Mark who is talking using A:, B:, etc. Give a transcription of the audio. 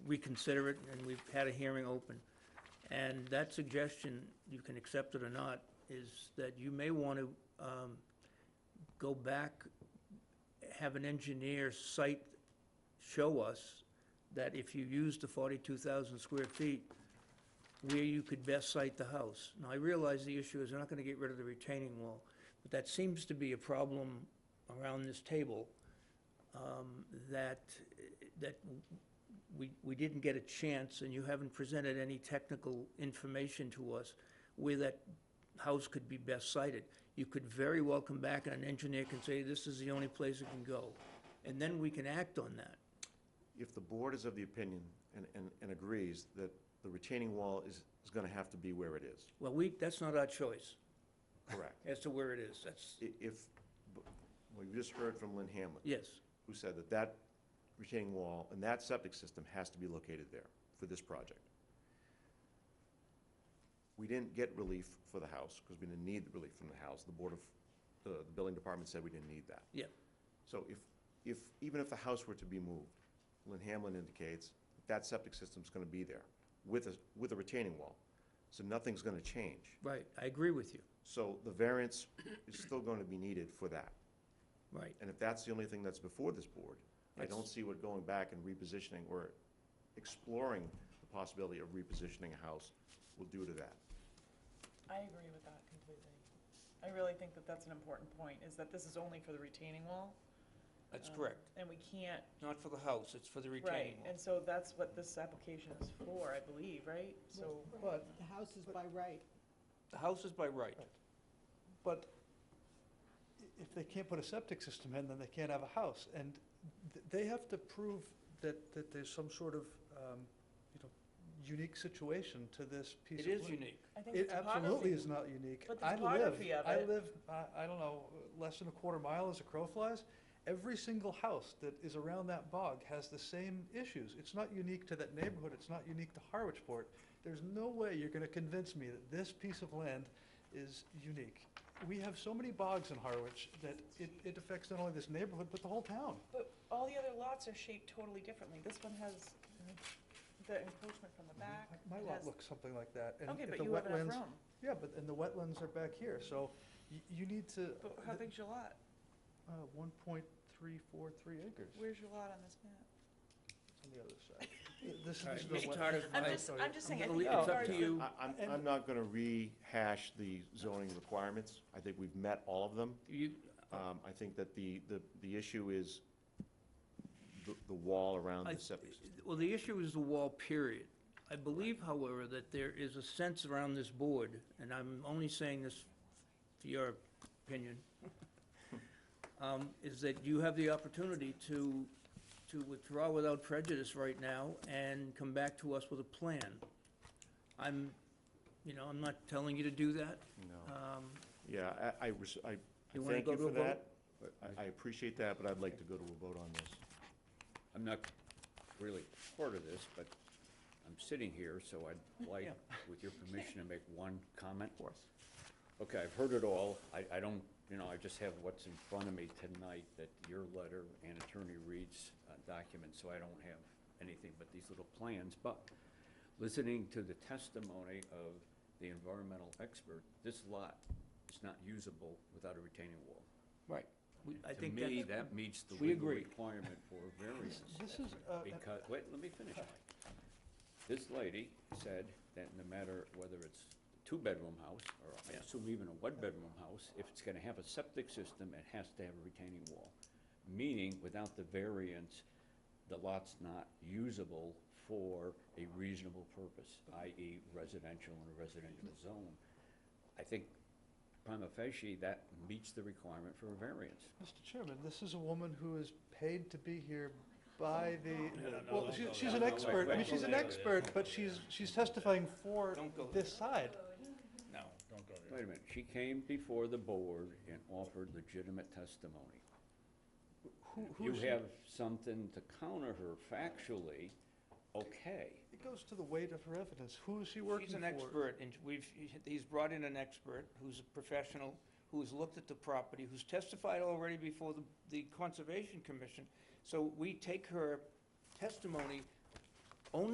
A: reconsider it, and we've had a hearing open. And that suggestion, you can accept it or not, is that you may want to um, go back, have an engineer site show us that if you use the 42,000 square feet, where you could best site the house. Now, I realize the issue is they're not going to get rid of the retaining wall, but that seems to be a problem around this table um, that, that we, we didn't get a chance, and you haven't presented any technical information to us where that house could be best sited. You could very well come back and an engineer can say, this is the only place it can go. And then we can act on that.
B: If the board is of the opinion and, and, and agrees that the retaining wall is, is gonna have to be where it is,
A: Well, we, that's not our choice
B: correct?
A: as to where it is. That's,
B: I- If, b- well, you just heard from Lynn Hamlin,
A: yes,
B: who said that that retaining wall and that septic system has to be located there for this project. We didn't get relief for the house, because we didn't need relief from the house. The board of, the the building department said we didn't need that.
A: yeah.
B: So if, if, even if the house were to be moved, Lynn Hamlin indicates that septic system's gonna be there with a, with a retaining wall. So nothing's gonna change.
A: Right, I agree with you,
B: So the variance is still gonna be needed for that.
A: right.
B: And if that's the only thing that's before this board, I don't
A: That's-
B: see what going back and repositioning or exploring the possibility of repositioning a house will do to that.
C: I agree with that completely. I really think that that's an important point, is that this is only for the retaining wall.
A: That's
C: um,
A: correct.
C: And we can't,
A: Not for the house, it's for the
C: right,
A: retaining wall.
C: and so that's what this application is for, I believe, right? So,
D: But the house is by right.
A: The house is by right.
E: But i- if they can't put a septic system in, then they can't have a house. And th- they have to prove that, that there's some sort of, um, you know, unique situation to this piece
A: It
E: of
A: is
E: land.
A: unique.
C: I think
E: It
C: the
E: absolutely
C: topography,
E: is not unique.
C: But the
E: I live-
C: topography of
E: I
C: it-
E: live, I, I don't know, less than a quarter mile as a crow flies. Every single house that is around that bog has the same issues. It's not unique to that neighborhood, it's not unique to Harwichport. There's no way you're gonna convince me that this piece of land is unique. We have so many bogs in Harwich that it, it affects not only this neighborhood, but the whole town.
C: but all the other lots are shaped totally differently. This one has the encroachment from the back.
E: My
C: it
E: lot
C: has-
E: looks something like that. and
C: Okay,
E: if
C: but
E: the
C: you have enough
E: wetlands-
C: room.
E: Yeah, but, and the wetlands are back here, so you, you need to.
C: But how
E: th-
C: big's your lot?
E: Uh, one point three four three acres.
C: Where's your lot on this map?
E: It's on the other side. Th- This is,
A: All right,
E: this is
A: Mr.
E: the wet-
A: Tarter,
C: I'm
A: I-
C: just, I'm just
A: I'm
C: saying,
A: gonna
C: I think
A: leave-
C: it's
A: it's up
C: hard
A: to
C: to,
A: you.
B: I, I'm, I'm not gonna rehash the zoning requirements. I think we've met all of them.
A: You,
B: Um, I think that the, the, the issue is the, the wall around
A: I-
B: the septic system.
A: Well, the issue is the wall, period. I believe, however, that there is a sense around this board, and I'm only saying this for your opinion, um, is that you have the opportunity to, to withdraw without prejudice right now and come back to us with a plan. I'm, you know, I'm not telling you to do that.
B: No.
A: Um,
B: Yeah, I, I, res- I I
A: You wanna
B: thank
A: go
B: you
A: to
B: for
A: a vote?
B: that. I I appreciate that, but I'd like to go to a vote on this.
F: I'm not really part of this, but I'm sitting here, so I'd like, with your permission, to make one comment. Of course. Okay, I've heard it all. I, I don't, you know, I just have what's in front of me tonight, that your letter and Attorney Reed's uh, document, so I don't have anything but these little plans. But listening to the testimony of the environmental expert, this lot is not usable without a retaining wall.
A: Right. We- I
F: To
A: think
F: me,
A: that's,
F: that meets the
A: we
F: legal
A: agree.
F: requirement for variance.
E: this is, uh, uh,
F: Because, wait, let me finish, Mike. This lady said that no matter whether it's a two-bedroom house, or I assume even a one-bedroom house, if it's gonna have a septic system, it has to have a retaining wall. Meaning, without the variance, the lot's not usable for a reasonable purpose, i.e. residential in a residential zone. I think prima facie, that meets the requirement for a variance.
E: Mr. Chairman, this is a woman who is paid to be here by the, well, she- she's an expert, I mean, she's an expert, but she's, she's testifying for this side.
F: Wait a minute, she came before the board and offered legitimate testimony.
E: Who, who
F: you
E: is she?
F: have something to counter her factually, okay.
E: It goes to the weight of her evidence. Who is she working for?
A: She's an expert, and we've, he's brought in an expert who's a professional, who's looked at the property, who's testified already before the, the Conservation Commission. So we take her testimony